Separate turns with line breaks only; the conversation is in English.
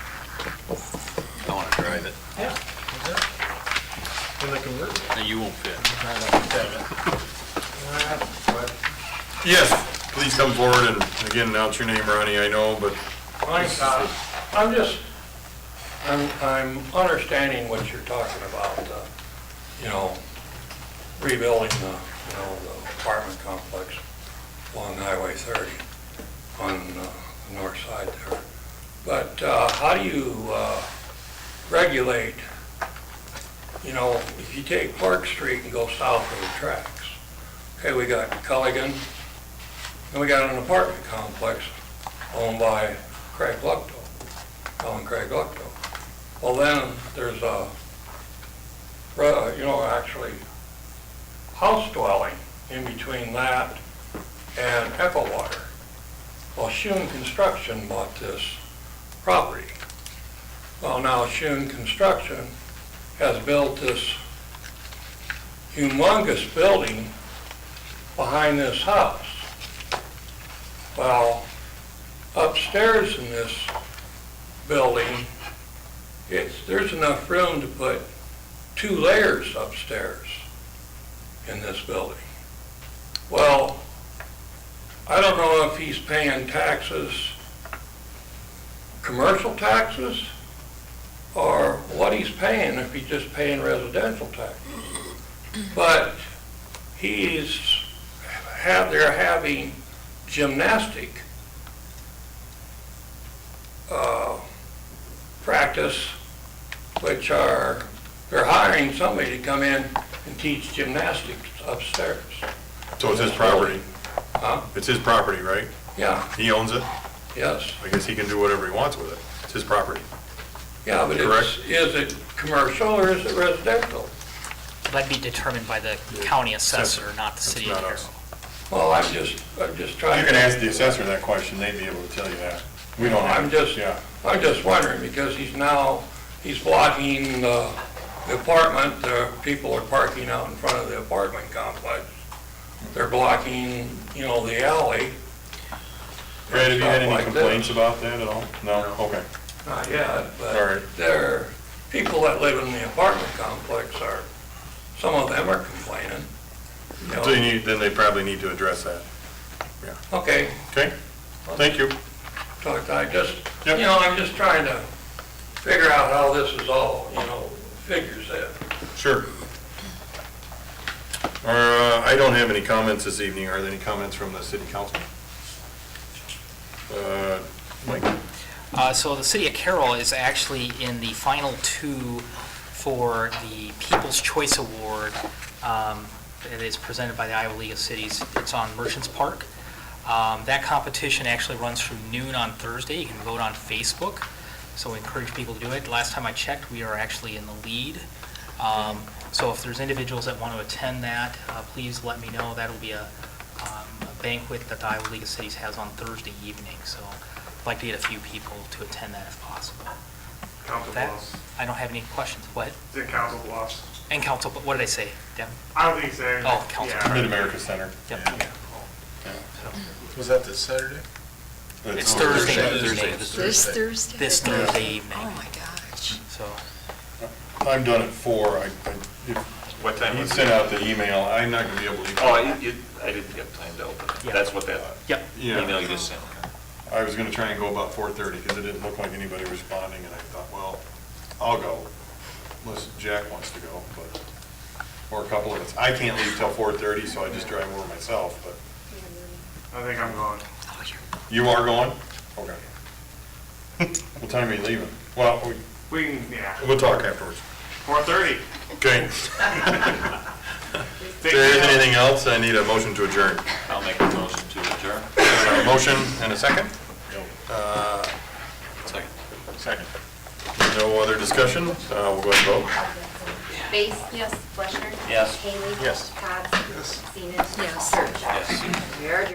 private.
Yeah.
And they convert it.
Now, you won't fit.
Yes, please come forward and again, announce your name, Ronnie, I know, but
I'm uh, I'm just, I'm, I'm understanding what you're talking about, uh, you know, rebuilding the, you know, the apartment complex along Highway 30 on uh, the north side there. But uh, how do you uh, regulate, you know, if you take Clark Street and go south of the tracks? Okay, we got Culligan, and we got an apartment complex owned by Craig Lucto, Alan Craig Lucto. Well, then, there's a, ru- you know, actually, house dwelling in between that and Echo Water. Well, Shun Construction bought this property. Well, now Shun Construction has built this humongous building behind this house. Well, upstairs in this building, it's, there's enough room to put two layers upstairs in this building. Well, I don't know if he's paying taxes, commercial taxes, or what he's paying, if he's just paying residential taxes. But he's, have, they're having gymnastic uh, practice, which are, they're hiring somebody to come in and teach gymnastics upstairs.
so it's his property.
Oh. Huh?
It's his property, right?
Yeah,
He owns it.
yes,
I guess he can do whatever he wants with it. It's his property.
yeah, but it's,
Correct.
is it commercial or is it residential?
That'd be determined by the county assessor, not the city
That's not
engineer.
us.
Well, I'm just, I'm just trying.
You can ask the assessor that question, they'd be able to tell you that. We don't have.
I'm just,
Yeah.
I'm just wondering, because he's now, he's blocking the the apartment, the people are parking out in front of the apartment complex. They're blocking, you know, the alley.
Brad, have you had
Stuff
any
like this.
complaints about that at all? No? Okay.
Not yet,
All right.
but there, people that live in the apartment complex are, some of them are complaining. you know.
So you need, then they probably need to address that.
Okay,
Okay? Thank you.
talk, I just, you
Yep.
know, I'm just trying to figure out how this is all, you know, figures in.
Sure. Uh, I don't have any comments this evening. Are there any comments from the city council? Uh, Mike?
Uh, So the city of Carroll is actually in the final two for the People's Choice Award. um, It is presented by the Iowa League of Cities. It's on Merchants Park. Um, That competition actually runs from noon on Thursday. You can vote on Facebook, so we encourage people to do it. Last time I checked, we are actually in the lead. Um, So if there's individuals that want to attend that, uh, please let me know. That'll be a um, a banquet that the Iowa League of Cities has on Thursday evening, so I'd like to get a few people to attend that if possible.
Council
That-
Bluffs.
I don't have any questions. What?
Is it Council Bluffs?
And council, but what did I say? Devin?
I don't think so.
Oh, Council
Yeah.
Mid-America Center.
Yep. So,
Was that this Saturday?
It's Thursday evening,
This Thursday?
this Thursday evening,
Oh, my gosh.
so.
I'm done at four. I, I- if-
What time
he
was
sent out the email. I'm not gonna be able to.
Oh, I, you- I didn't get time to open it.
Yeah.
That's what that
Yep.
Yeah,
email you just sent.
I was gonna try and go about four thirty, because it didn't look like anybody responding, and I thought, well, I'll go, unless Jack wants to go, but, or a couple of us. I can't leave till four thirty, so I just drive over myself, but.
I think I'm going.
Oh, you're
You are going? Okay. What time are you leaving? Well, we-
We can, yeah,
we'll talk afterwards.
four thirty.
Okay. If there isn't anything else, I need a motion to adjourn.
I'll make a motion to adjourn.
A Motion and a second?
Second.
Second. No other discussion? Uh, We'll go ahead and vote.
Base? Yes. Fleshner?
Yes.
Haley?
Yes.
Cobb? Yes. Seaman?
Yes.
Surratt?
Yes.
We are adjourned.